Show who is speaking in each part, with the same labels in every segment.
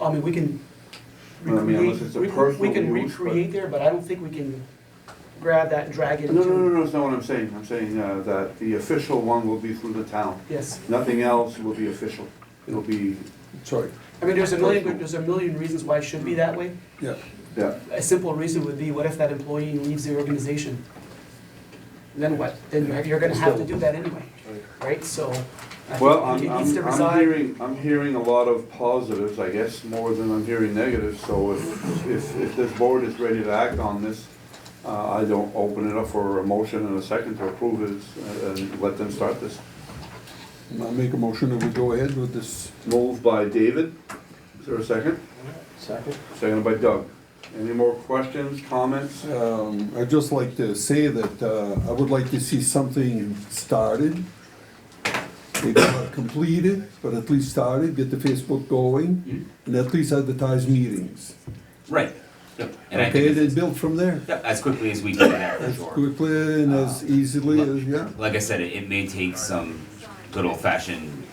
Speaker 1: I mean, we can
Speaker 2: Well, I mean,
Speaker 1: recreate,
Speaker 2: unless it's a
Speaker 1: we can- we
Speaker 2: personal
Speaker 1: can
Speaker 2: use, but-
Speaker 1: recreate there, but I don't think we can grab that and drag it
Speaker 2: No, no, no,
Speaker 1: into,
Speaker 2: no, that's not what I'm saying. I'm saying uh, that the official one will be through the town.
Speaker 1: yes.
Speaker 2: Nothing else will be official. It'll be,
Speaker 3: Sorry,
Speaker 1: I mean, there's a
Speaker 2: Personal.
Speaker 1: million, there's a million reasons why it should be that way.
Speaker 3: yeah.
Speaker 2: yeah,
Speaker 1: A simple reason would be, what if that employee leaves the organization? Then what? Then you're- you're gonna have to do that anyway, right? So. I think
Speaker 2: Well,
Speaker 1: it
Speaker 2: I'm,
Speaker 1: needs to
Speaker 2: I'm, I'm
Speaker 1: reside-
Speaker 2: hearing, I'm hearing a lot of positives, I guess, more than I'm hearing negatives, so if, if, if this board is ready to act on this, uh, I don't open it up for a motion and a second to approve it uh, and let them start this.
Speaker 3: I'll make a motion that we go ahead with this.
Speaker 2: Moved by David, is there a second?
Speaker 4: Second?
Speaker 2: Seconded by Doug. Any more questions, comments?
Speaker 3: Um, I'd just like to say that uh, I would like to see something started. Maybe not completed, but at least started, get the Facebook going,
Speaker 5: Mm-hmm.
Speaker 3: and at least advertise meetings.
Speaker 5: Right. And I
Speaker 3: Okay,
Speaker 5: think
Speaker 3: then build from there.
Speaker 5: yeah, as quickly as we can, yeah, for sure. Uh,
Speaker 3: Quickly and as easily as, yeah.
Speaker 5: Like I said, it, it may take some good old fashioned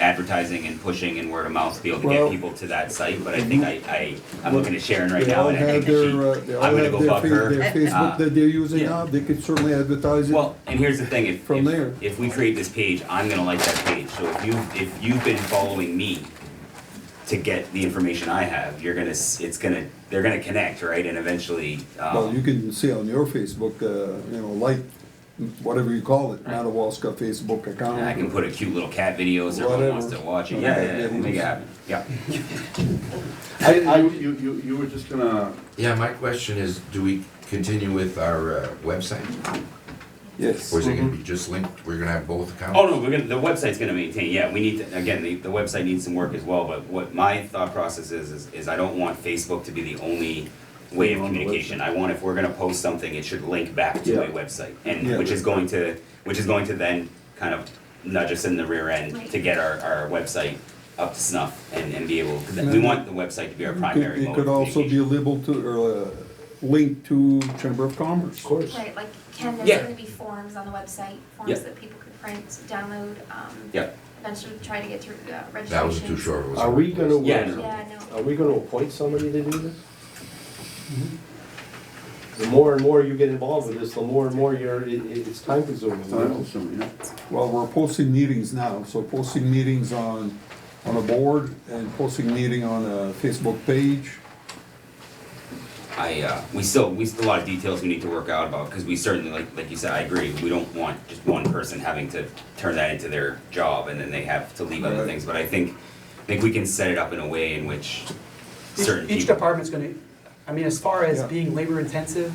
Speaker 5: advertising and pushing and word of mouth to be able to
Speaker 3: Well-
Speaker 5: get people to that site, but I think I, I, I'm looking at Sharon right
Speaker 3: They
Speaker 5: now
Speaker 3: all
Speaker 5: and I
Speaker 3: have
Speaker 5: think
Speaker 3: their, uh,
Speaker 5: that she,
Speaker 3: they all
Speaker 5: I'm gonna
Speaker 3: have
Speaker 5: go
Speaker 3: their
Speaker 5: bug
Speaker 3: fa-
Speaker 5: her.
Speaker 3: their
Speaker 5: Uh,
Speaker 3: Facebook that they're using
Speaker 5: yeah.
Speaker 3: now, they could certainly advertise it.
Speaker 5: Well, and here's the thing, if,
Speaker 3: From
Speaker 5: if-
Speaker 3: there.
Speaker 5: if we create this page, I'm gonna like that page, so if you, if you've been following me to get the information I have, you're gonna, s- it's gonna, they're gonna connect, right, and eventually, um.
Speaker 3: Well, you can see on your Facebook, uh, you know, like, whatever you call it, Madawaska Facebook account.
Speaker 5: And I can put a cute little cat videos, everyone wants to
Speaker 3: Whatever.
Speaker 5: watch it, yeah,
Speaker 3: Okay,
Speaker 5: yeah, yeah,
Speaker 3: yeah,
Speaker 5: we'll make it
Speaker 3: just-
Speaker 5: happen, yeah.
Speaker 2: I, I, you, you, you were just gonna,
Speaker 6: Yeah, my question is, do we continue with our uh, website?
Speaker 3: Yes.
Speaker 6: Or is it gonna be just linked, we're gonna have both accounts?
Speaker 5: Oh, no, we're gonna, the website's gonna maintain, yeah, we need, to again, the, the website needs some work as well, but what my thought process is, is, is I don't want Facebook to be the only way of
Speaker 2: On the
Speaker 5: communication. I want if we're gonna post something, it should link back to a
Speaker 2: Yeah.
Speaker 5: website, and,
Speaker 3: Yeah.
Speaker 5: which is going to, which is going to then kind of nudge us in the rear end to get our, our website up to snuff and, and be able, 'cause we want the website to be our
Speaker 3: It could-
Speaker 5: primary
Speaker 3: It
Speaker 5: mode of
Speaker 3: could also be
Speaker 5: communication.
Speaker 3: labeled to, or, uh, linked to Chamber of Commerce. Of course.
Speaker 7: Right, like Ken,
Speaker 5: Yeah.
Speaker 7: there's gonna be forms on the website,
Speaker 5: Yeah.
Speaker 7: forms that people could print, download, um,
Speaker 5: Yep.
Speaker 7: eventually try to get through uh, registration.
Speaker 6: That was too short. it was-
Speaker 4: Are we gonna,
Speaker 5: Yeah, no.
Speaker 7: Yeah, no,
Speaker 4: are we gonna appoint somebody to do this? The more and more you get involved with this, the more and more you're, it, it- it's time consuming. you
Speaker 2: time
Speaker 4: know?
Speaker 2: consuming, yeah?
Speaker 3: Well, we're posting meetings now, so posting meetings on, on a board and posting meeting on a Facebook page.
Speaker 5: I, uh, we still, we still, a lot of details we need to work out about, because we certainly, like, like you said, I agree, we don't want just one person having to turn that into their job, and then they have to leave other
Speaker 3: Right.
Speaker 5: things, but I think, I think we can set it up in a way in which
Speaker 1: Each-
Speaker 5: certain people.
Speaker 1: Each department's gonna, I mean, as far as
Speaker 3: Yeah.
Speaker 1: being labor intensive,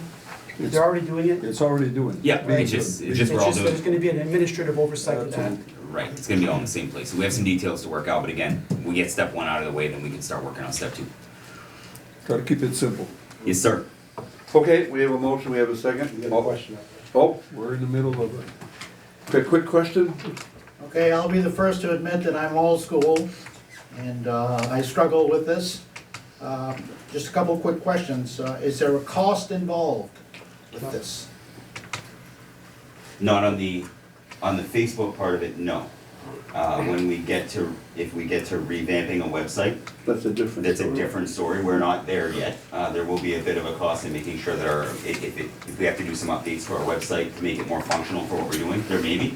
Speaker 3: It's-
Speaker 1: they're already doing it.
Speaker 3: It's already doing. it.
Speaker 5: Yeah, it's just, it's just we're all doing.
Speaker 1: There's gonna be an administrative oversight of that.
Speaker 3: Absolutely.
Speaker 5: Right, it's gonna be all in the same place, so we have some details to work out, but again, we get step one out of the way, then we can start working on step two.
Speaker 3: Gotta keep it simple.
Speaker 5: Yes, sir,
Speaker 2: Okay, we have a motion, we have a second.
Speaker 4: You got a question?
Speaker 2: Oh,
Speaker 3: We're in the middle of it.
Speaker 2: quick, quick question?
Speaker 8: Okay, I'll be the first to admit that I'm old school, and uh, I struggle with this. Uh, Just a couple quick questions. Uh, Is there a cost involved with this?
Speaker 5: not on the, on the Facebook part of it, no. Uh, when we get to, if we get to revamping a website,
Speaker 2: That's a different.
Speaker 5: That's a
Speaker 2: story.
Speaker 5: different story, we're not there yet. Uh, there will be a bit of a cost in making sure that our, if, if, it- if we have to do some updates to our website to make it more functional for what we're doing, there may be.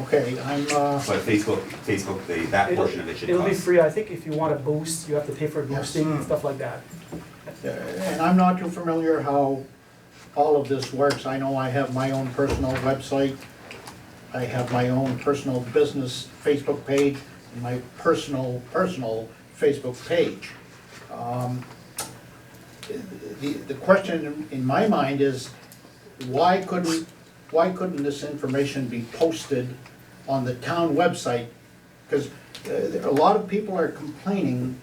Speaker 8: Okay, I'm, uh,
Speaker 5: But Facebook, Facebook, the, that
Speaker 1: It'll-
Speaker 5: portion of it should
Speaker 1: It'll be
Speaker 5: cost.
Speaker 1: free, I think if you want a boost, you have to pay for boosting and stuff like that.
Speaker 8: and I'm not too familiar how all of this works. I know I have my own personal website. I have my own personal business Facebook page, and my personal, personal Facebook page. Um, The, the question in my mind is, why couldn't, why couldn't this information be posted on the town website? Because a lot of people are complaining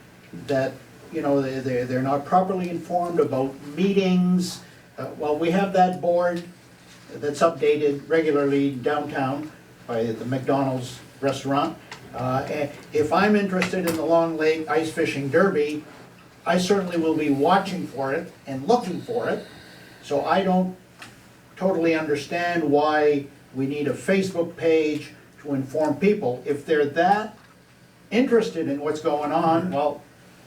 Speaker 8: that, you know, they- they, they're not properly informed about meetings. Uh, Well, we have that board that's updated regularly downtown by the McDonald's restaurant. Uh, and If I'm interested in the Long Lake Ice Fishing Derby, I certainly will be watching for it and looking for it. So I don't totally understand why we need a Facebook page to inform people. If they're that interested in what's going on, well,